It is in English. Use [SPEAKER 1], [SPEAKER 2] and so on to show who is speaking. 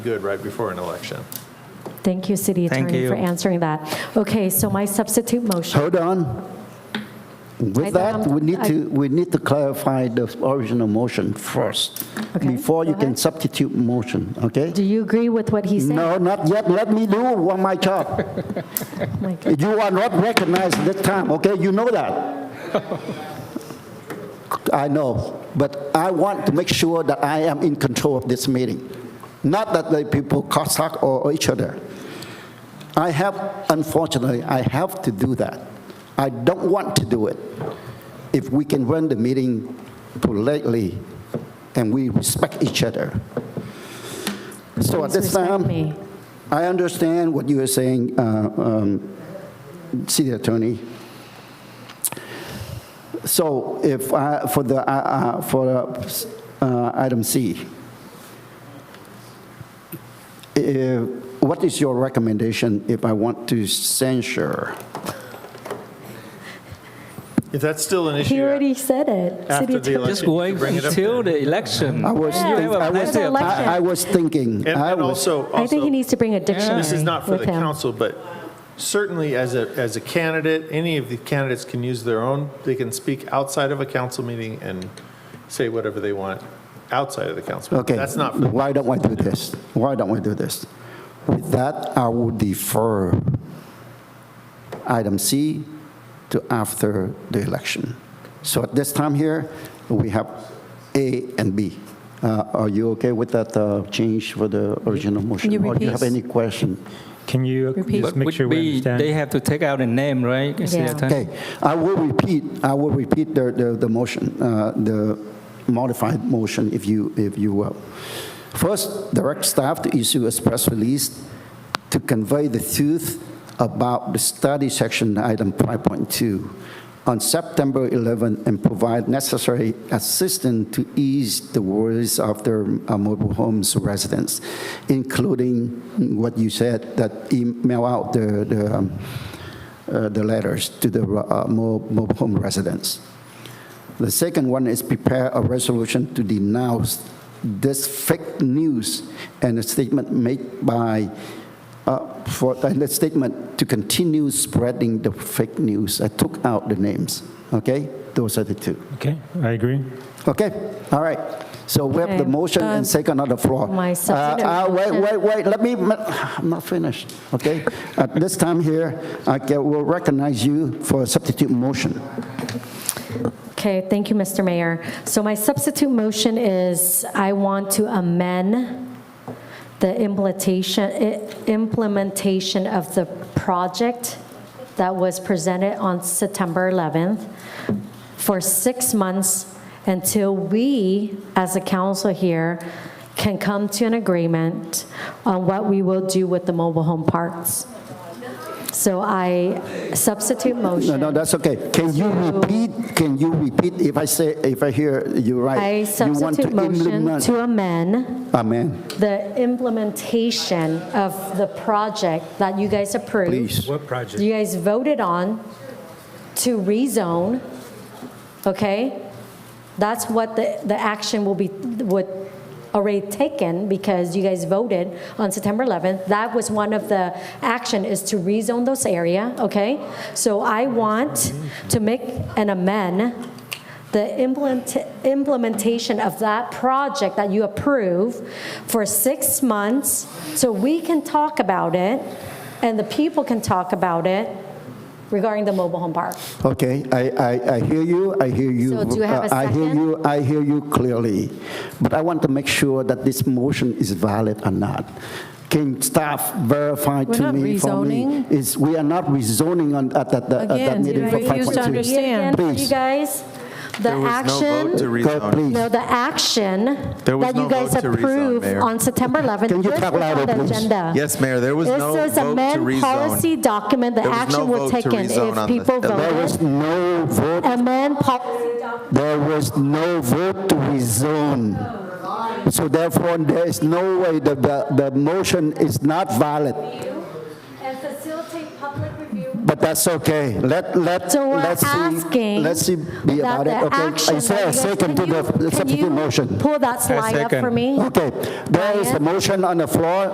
[SPEAKER 1] good right before an election.
[SPEAKER 2] Thank you, City
[SPEAKER 3] Thank
[SPEAKER 2] Attorney, for
[SPEAKER 3] you.
[SPEAKER 2] answering that. Okay, so my substitute motion,
[SPEAKER 4] Hold on. With that, we need to, we need to clarify the original motion first,
[SPEAKER 2] Okay,
[SPEAKER 4] before you
[SPEAKER 2] go
[SPEAKER 4] can
[SPEAKER 2] ahead.
[SPEAKER 4] substitute motion, okay?
[SPEAKER 2] do you agree with what he said?
[SPEAKER 4] No, not yet, let me do one my job.
[SPEAKER 2] My God.
[SPEAKER 4] You are not recognized this time, okay? You know that. I know, but I want to make sure that I am in control of this meeting, not that the people cossack or or each other. I have, unfortunately, I have to do that. I don't want to do it. If we can run the meeting politely and we respect each other. So at
[SPEAKER 2] Please
[SPEAKER 4] this
[SPEAKER 2] respect me.
[SPEAKER 4] time, I understand what you are saying, uh, um, City Attorney. So if, I- for the, uh, uh, for uh, item C, eh, what is your recommendation if I want to censure?
[SPEAKER 1] If that's still an issue.
[SPEAKER 2] He already said it.
[SPEAKER 1] After
[SPEAKER 2] City
[SPEAKER 1] the
[SPEAKER 2] Attorney.
[SPEAKER 1] election.
[SPEAKER 3] Just
[SPEAKER 1] You
[SPEAKER 3] wait
[SPEAKER 1] bring it up
[SPEAKER 3] until
[SPEAKER 1] there.
[SPEAKER 3] the election.
[SPEAKER 4] I was,
[SPEAKER 2] Yeah.
[SPEAKER 4] think- I
[SPEAKER 2] After
[SPEAKER 4] was,
[SPEAKER 2] the election.
[SPEAKER 4] I I was thinking,
[SPEAKER 1] And
[SPEAKER 4] I
[SPEAKER 1] and
[SPEAKER 4] was,
[SPEAKER 1] also,
[SPEAKER 2] I think he
[SPEAKER 1] also,
[SPEAKER 2] needs to bring a dictionary
[SPEAKER 1] this is not for
[SPEAKER 2] with
[SPEAKER 1] the
[SPEAKER 2] him.
[SPEAKER 1] council, but certainly as a, as a candidate, any of the candidates can use their own, they can speak outside of a council meeting and say whatever they want outside of the council. meeting.
[SPEAKER 4] okay,
[SPEAKER 1] That's not, for-
[SPEAKER 4] why don't we do this? Why don't we do this? With that, I will defer item C to after the election. So at this time here, we have A and B. Uh, Are you okay with that uh, change for the original motion?
[SPEAKER 5] Can you
[SPEAKER 4] Or do you have any
[SPEAKER 5] repeat?
[SPEAKER 4] question?
[SPEAKER 6] Can you
[SPEAKER 5] Repeat.
[SPEAKER 6] just
[SPEAKER 3] But
[SPEAKER 6] make
[SPEAKER 3] would
[SPEAKER 6] sure we
[SPEAKER 3] be, they
[SPEAKER 6] understand?
[SPEAKER 3] have to take out the name, right? City
[SPEAKER 2] Yeah.
[SPEAKER 3] Attorney?
[SPEAKER 4] Okay, I will repeat, I will repeat the, the, the motion, uh, the modified motion, if you, if you will. First, direct staff to issue a press release to convey the truth about the study section, item 5.2, on September 11, and provide necessary assistance to ease the worries of their uh, mobile homes residents, including what you said, that email out the, the um, uh, the letters to the uh, mo- mobile home residents. The second one is prepare a resolution to denounce this fake news and a statement made by, uh, for, and a statement to continue spreading the fake news. I took out the names, okay? Those are the two.
[SPEAKER 6] Okay, I agree.
[SPEAKER 4] Okay, all right. So we have the
[SPEAKER 2] Okay, um,
[SPEAKER 4] motion and second on the floor.
[SPEAKER 2] my substitute
[SPEAKER 4] Uh, uh, Wait,
[SPEAKER 2] motion.
[SPEAKER 4] wait, wait, let me, I'm not finished, okay? At this time here, I ca- will recognize you for a substitute motion.
[SPEAKER 2] Okay, thank you, Mr. Mayor. So my substitute motion is I want to amend the implementation, i- implementation of the project that was presented on September 11th for six months until we, as a council here, can come to an agreement on what we will do with the mobile home parks. So I substitute
[SPEAKER 4] No,
[SPEAKER 2] motion.
[SPEAKER 4] no, that's okay. Can you repeat, can you repeat if I say, if I hear you
[SPEAKER 2] I
[SPEAKER 4] right? You want to
[SPEAKER 2] substitute motion
[SPEAKER 4] implement-
[SPEAKER 2] to amend
[SPEAKER 4] Amen,
[SPEAKER 2] the implementation of the project that you guys approved.
[SPEAKER 4] please.
[SPEAKER 6] What project?
[SPEAKER 2] You guys voted on to rezone, okay? That's what the, the action will be, would already taken because you guys voted on September 11th. That was one of the action is to rezone those area, okay? So I want to make an amend the implement, implementation of that project that you approve for six months so we can talk about it and the people can talk about it regarding the mobile home park.
[SPEAKER 4] Okay, I, I, I hear you, I hear you.
[SPEAKER 2] So do you have a
[SPEAKER 4] uh, I hear
[SPEAKER 2] second?
[SPEAKER 4] you, I hear you clearly, but I want to make sure that this motion is valid or not. Can staff verify
[SPEAKER 5] We're
[SPEAKER 4] to
[SPEAKER 5] not
[SPEAKER 4] me, for me?
[SPEAKER 5] rezoning.
[SPEAKER 4] Is, we are not rezoning on, at that, at that
[SPEAKER 5] Again,
[SPEAKER 4] meeting
[SPEAKER 5] you
[SPEAKER 4] for
[SPEAKER 5] refuse to
[SPEAKER 2] Read
[SPEAKER 4] 5.2.
[SPEAKER 2] it again
[SPEAKER 5] understand.
[SPEAKER 2] for You
[SPEAKER 4] Please.
[SPEAKER 2] guys, the
[SPEAKER 7] There was no vote to
[SPEAKER 2] action,
[SPEAKER 4] God,
[SPEAKER 2] no,
[SPEAKER 7] rezone.
[SPEAKER 4] please,
[SPEAKER 2] the action
[SPEAKER 7] There was
[SPEAKER 2] that
[SPEAKER 7] no
[SPEAKER 2] you guys
[SPEAKER 7] vote to rezone,
[SPEAKER 2] approved
[SPEAKER 7] Mayor.
[SPEAKER 2] on September 11th.
[SPEAKER 4] Can you
[SPEAKER 2] this
[SPEAKER 4] talk
[SPEAKER 2] was
[SPEAKER 4] louder,
[SPEAKER 2] on the
[SPEAKER 4] please?
[SPEAKER 2] agenda.
[SPEAKER 7] Yes, Mayor, there was no
[SPEAKER 2] This is
[SPEAKER 7] vote to
[SPEAKER 2] amend
[SPEAKER 7] rezone.
[SPEAKER 2] policy document, the
[SPEAKER 7] There was no
[SPEAKER 2] action was
[SPEAKER 7] vote to
[SPEAKER 2] taken
[SPEAKER 7] rezone
[SPEAKER 2] if
[SPEAKER 7] on the-
[SPEAKER 2] people
[SPEAKER 7] There
[SPEAKER 4] there was
[SPEAKER 2] voted.
[SPEAKER 4] no vote,
[SPEAKER 2] Amend policy document.
[SPEAKER 4] there was no vote to rezone. So therefore, there is no way that the, the motion is not valid.
[SPEAKER 2] and facilitate public review.
[SPEAKER 4] But that's okay. Let, let,
[SPEAKER 2] So we're
[SPEAKER 4] let's see,
[SPEAKER 2] asking
[SPEAKER 4] let's see be
[SPEAKER 2] that
[SPEAKER 4] about it.
[SPEAKER 2] the
[SPEAKER 4] Okay,
[SPEAKER 2] action.
[SPEAKER 4] I say a
[SPEAKER 2] that you guys-
[SPEAKER 4] second to
[SPEAKER 2] can you-
[SPEAKER 4] the
[SPEAKER 2] can
[SPEAKER 4] substitute
[SPEAKER 2] you
[SPEAKER 4] motion.
[SPEAKER 2] Pull that slide up for
[SPEAKER 3] second.
[SPEAKER 2] me.
[SPEAKER 4] Okay, there is a
[SPEAKER 2] Diane?
[SPEAKER 4] motion on the floor.